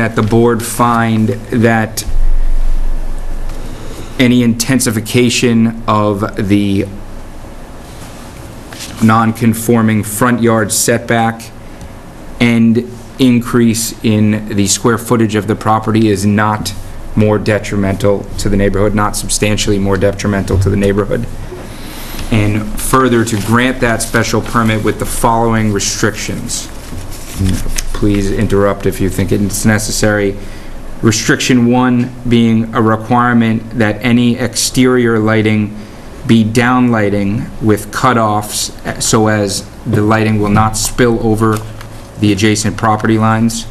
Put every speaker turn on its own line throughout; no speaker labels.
that the board find that any intensification of the non-conforming front yard setback and increase in the square footage of the property is not more detrimental to the neighborhood, not substantially more detrimental to the neighborhood. And further, to grant that special permit with the following restrictions. Please interrupt if you think it's necessary. Restriction one being a requirement that any exterior lighting be downlighting with cutoffs eh, so as the lighting will not spill over the adjacent property lines.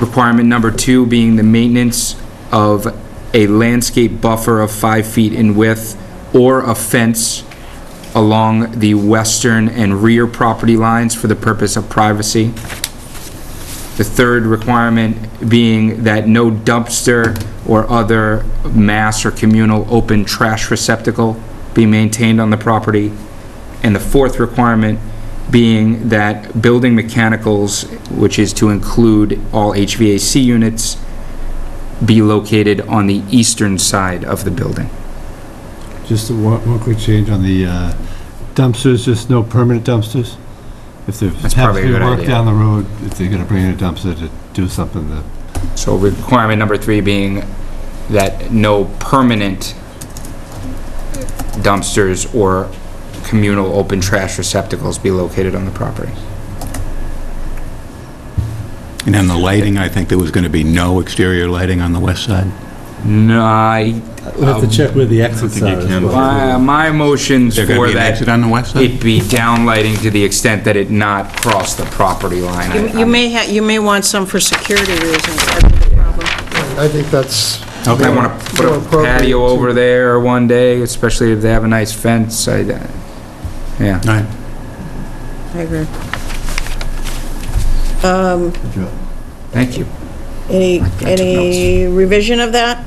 Requirement number two being the maintenance of a landscape buffer of five feet in width or a fence along the western and rear property lines for the purpose of privacy. The third requirement being that no dumpster or other mass or communal open trash receptacle be maintained on the property. And the fourth requirement being that building mechanicals, which is to include all HVAC units, be located on the eastern side of the building.
Just one, one quick change on the uh, dumpsters, just no permanent dumpsters? If there's
That's
happens
probably a
to be
good
work
idea.
down the road, if they're gonna bring in a dumpster to do something, that
So requirement number three being that no permanent dumpsters or communal open trash receptacles be located on the property.
And then the lighting, I think there was going to be no exterior lighting on the west side.
No, I,
We'll
Um,
have to check where the exits are as well.
my, my motion's
There going
for
to be an exit
that
on the west side?
it be downlighting to the extent that it not cross the property line.
You you may, ha- you may want some for security reasons, that's the problem.
I think that's...
I wanna put
more
a
appropriate
patio
to-
over there one day, especially if they have a nice fence, I, uh, yeah.
All right.
I agree.
Good job.
Thank you.
Any, any revision of that?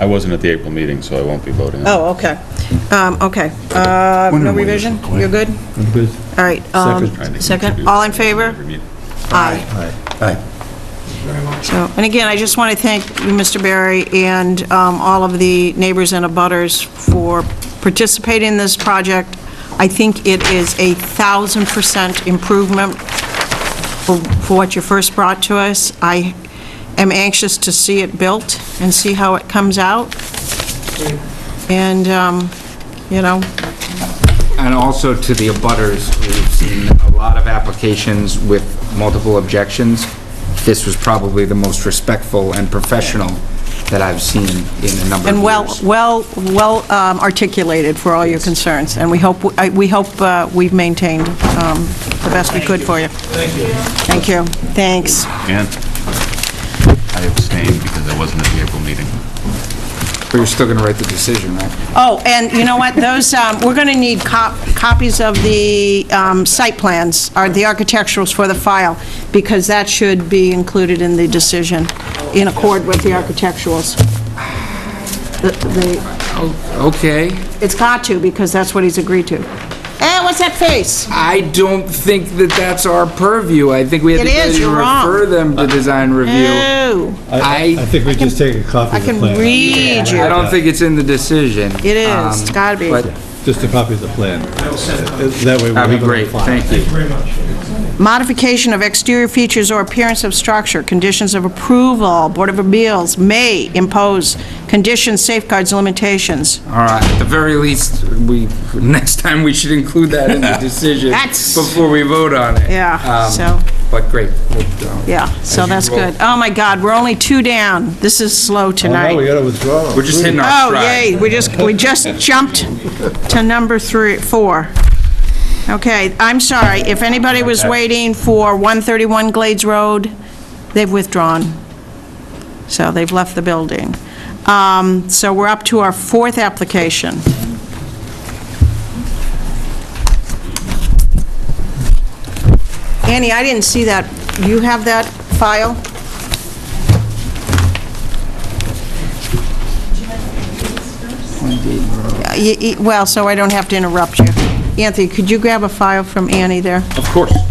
I wasn't at the April meeting, so I won't be voting.
Oh, okay. Um, okay. Uh, no
Wondering why
revision?
you're so quiet.
You're good?
I'm good.
All right. um,
Trying to
Second,
introduce
all in
every
favor?
meeting.
Aye.
Aye.
So, and again, I just want to thank you, Mr. Barry, and um, all of the neighbors and abutters for participating in this project. I think it is a 1,000% improvement for for what you first brought to us. I am anxious to see it built and see how it comes out. And, um, you know,
And also to the abutters, we've seen a lot of applications with multiple objections. This was probably the most respectful and professional that I've seen in a number of
and well,
years.
well, well um, articulated for all your concerns, and we hope, I- we hope uh, we've maintained um, the best we could for you. Thank you. Thank you, thanks.
And I abstained because I wasn't at the April meeting.
But you're still going to write the decision, right?
Oh, and you know what, those, um, we're going to need cop- copies of the um, site plans, or the architecturals for the file, because that should be included in the decision, in accord with the architecturals. The- the-
Okay.
It's got to, because that's what he's agreed to. Eh, what's that face?
I don't think that that's our purview. I think we have
It
the
is,
ability to
you're wrong. Eh,
refer them to design review.
Ew,
I
I,
think we just take a copy
I
of the
can
plan.
read you.
I don't think it's in the decision. Um,
It is, it's gotta be.
But
Just a copy of the plan. That way we have
that'd be
it on
great.
file.
Thank you.
Modification of exterior features or appearance of structure, conditions of approval, Board of Appeals may impose conditions, safeguards, limitations.
All right, at the very least, we, next time we should include that in the decision
That's-
before we vote on it.
Yeah,
Um,
so-
But great. we'll, uh,
Yeah, so
as
that's
you roll.
good. Oh, my God, we're only two down. This is
Oh,
slow
now we
tonight.
gotta withdraw.
We're just hitting our
Oh,
stride.
yay, we just, we just jumped to number three, four. Okay, I'm sorry, if anybody was waiting for 131 Glades Road, they've withdrawn. So they've left the building. Um, So we're up to our fourth application. Annie, I didn't see that. You have that file? Uh, y- y- Well, so I don't have to interrupt you. Anthony, could you grab a file from Annie there?
Of course.